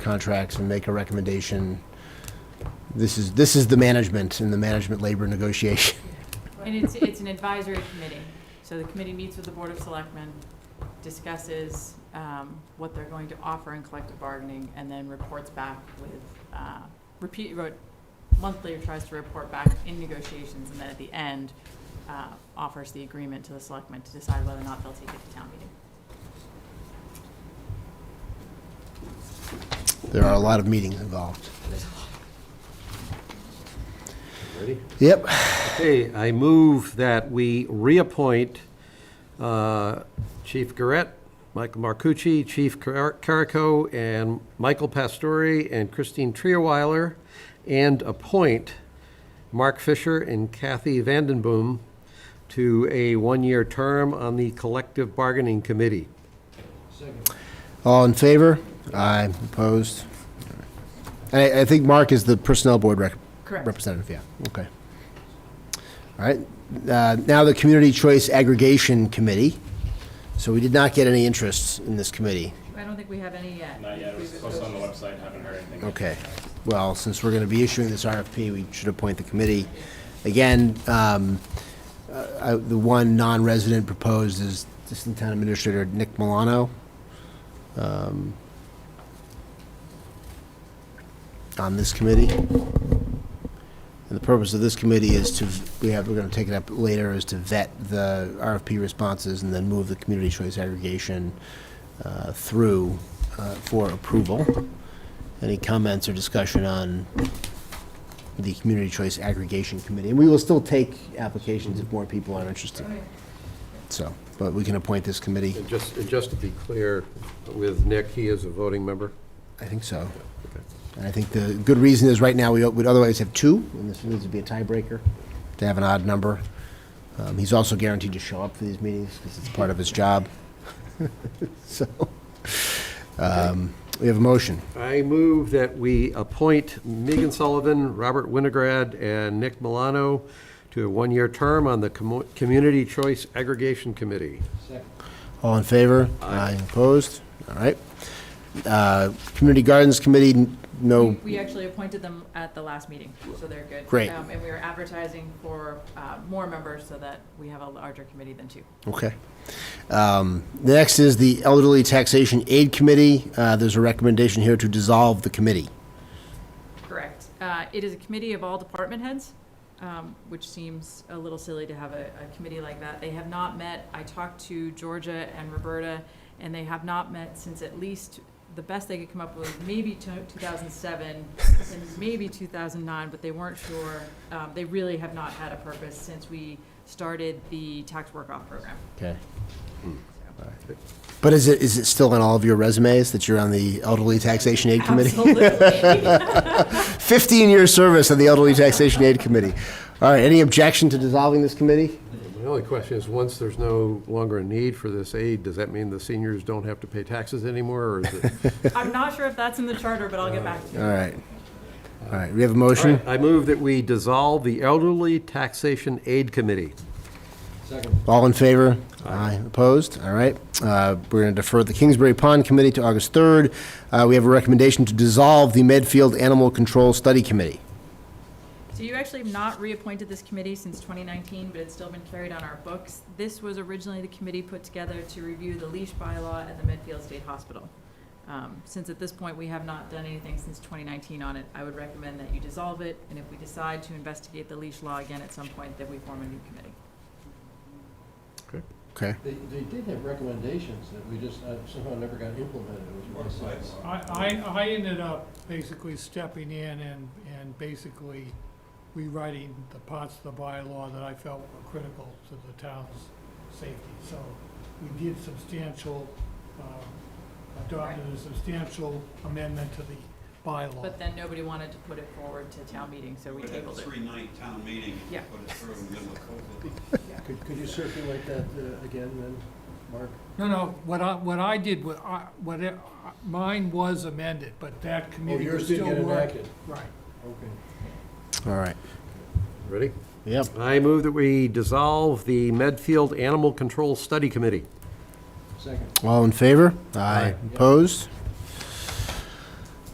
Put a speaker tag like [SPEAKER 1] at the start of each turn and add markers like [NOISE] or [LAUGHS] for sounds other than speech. [SPEAKER 1] contracts and make a recommendation. This is, this is the management and the management labor negotiation. [LAUGHS]
[SPEAKER 2] And it's, it's an advisory committee. So the committee meets with the Board of Selectmen, discusses um, what they're going to offer in collective bargaining, and then reports back with, uh, repeat, wrote monthly, or tries to report back in negotiations, and then at the end, uh, offers the agreement to the selectmen to decide whether or not they'll take it to town meeting.
[SPEAKER 1] There are a lot of meetings involved.
[SPEAKER 3] Ready?
[SPEAKER 1] Yep,
[SPEAKER 3] Okay, I move that we reappoint uh, Chief Garrett, Michael Marcucci, Chief Car- Carico, and Michael Pastore, and Christine Trierweiler, and appoint Mark Fisher and Kathy Vandenboom to a one-year term on the Collective Bargaining Committee.
[SPEAKER 1] all in favor? Aye, opposed? And I, I think Mark is the Personnel Board rec-
[SPEAKER 2] Correct.
[SPEAKER 1] representative, yeah, okay. All right, uh, now the Community Choice Aggregation Committee. So we did not get any interests in this committee.
[SPEAKER 2] I don't think we have any yet.
[SPEAKER 4] Not yet, it was posted on the website, haven't heard anything.
[SPEAKER 1] Okay. Well, since we're going to be issuing this RFP, we should appoint the committee. Again, um, uh, I- the one non-resident proposed is Assistant Town Administrator Nick Milano. um, On this committee. And the purpose of this committee is to, we have, we're going to take it up later, is to vet the RFP responses and then move the community choice aggregation uh, through uh, for approval. Any comments or discussion on the Community Choice Aggregation Committee? And we will still take applications if more people are interested. So, but we can appoint this committee.
[SPEAKER 3] And just, and just to be clear with Nick, he is a voting member.
[SPEAKER 1] I think so. And I think the good reason is right now, we would otherwise have two, and this needs to be a tiebreaker to have an odd number. Um, He's also guaranteed to show up for these meetings because it's part of his job. [LAUGHS] So, um, we have a motion.
[SPEAKER 3] I move that we appoint Megan Sullivan, Robert Winograd, and Nick Milano to a one-year term on the Commu- Community Choice Aggregation Committee.
[SPEAKER 1] All in favor? Aye. Opposed? All right. Uh, Community Gardens Committee, n- no,
[SPEAKER 2] We actually appointed them at the last meeting, so they're good.
[SPEAKER 1] Great.
[SPEAKER 2] Um, And we are advertising for uh, more members so that we have a larger committee than two.
[SPEAKER 1] okay. Um, The Next is the Elderly Taxation Aid Committee. Uh, There's a recommendation here to dissolve the committee.
[SPEAKER 2] Correct. Uh, It is a committee of all department heads, um, which seems a little silly to have a a committee like that. They have not met. I talked to Georgia and Roberta, and they have not met since at least, the best they could come up with, maybe to- 2007 and maybe 2009, but they weren't sure. Um, They really have not had a purpose since we started the tax work-off program.
[SPEAKER 1] Okay.
[SPEAKER 2] So-
[SPEAKER 1] But is it, is it still on all of your resumes that you're on the Elderly Taxation Aid Committee? [LAUGHS]
[SPEAKER 2] Absolutely.
[SPEAKER 1] 15-year service on the Elderly Taxation Aid Committee. All right, any objection to dissolving this committee?
[SPEAKER 3] My only question is, once there's no longer a need for this aid, does that mean the seniors don't have to pay taxes anymore, or is [LAUGHS] it?
[SPEAKER 2] I'm not sure if that's in the charter, but I'll get back to you.
[SPEAKER 1] All right. All right, we have a motion.
[SPEAKER 3] I move that we dissolve the Elderly Taxation Aid Committee.
[SPEAKER 1] All in favor? Aye. Opposed? All right. Uh, We're going to defer the Kingsbury Pond Committee to August 3rd. Uh, We have a recommendation to dissolve the Medfield Animal Control Study Committee.
[SPEAKER 2] So you actually have not reappointed this committee since 2019, but it's still been carried on our books. This was originally the committee put together to review the leash bylaw at the Medfield State Hospital. Um, Since at this point, we have not done anything since 2019 on it, I would recommend that you dissolve it, and if we decide to investigate the leash law again at some point, that we form a new committee.
[SPEAKER 1] Okay.
[SPEAKER 5] They, they did have recommendations that we just uh, somehow never got implemented, It was my sense.
[SPEAKER 6] I, I, I ended up basically stepping in and, and basically rewriting the parts of the bylaw that I felt were critical to the town's safety. So we did substantial, um, adopted a substantial amendment to the bylaw.
[SPEAKER 2] But then nobody wanted to put it forward to town meeting, so we
[SPEAKER 7] We had a
[SPEAKER 2] tabled it.
[SPEAKER 7] three-night town meeting, and
[SPEAKER 2] Yeah.
[SPEAKER 7] put it through in the middle of COVID.
[SPEAKER 5] Could, could you circulate that uh, again then, Mark?
[SPEAKER 6] No, no, what I, what I did, was I, what, I- mine was amended, but that
[SPEAKER 5] Oh,
[SPEAKER 6] committee was
[SPEAKER 5] yours didn't
[SPEAKER 6] still
[SPEAKER 5] get
[SPEAKER 6] working.
[SPEAKER 5] enacted,
[SPEAKER 6] Right.
[SPEAKER 5] okay.
[SPEAKER 1] All right.
[SPEAKER 3] Ready?
[SPEAKER 1] Yep.
[SPEAKER 3] I move that we dissolve the Medfield Animal Control Study Committee.
[SPEAKER 5] Second,
[SPEAKER 1] All in favor?
[SPEAKER 3] Aye.
[SPEAKER 1] Opposed?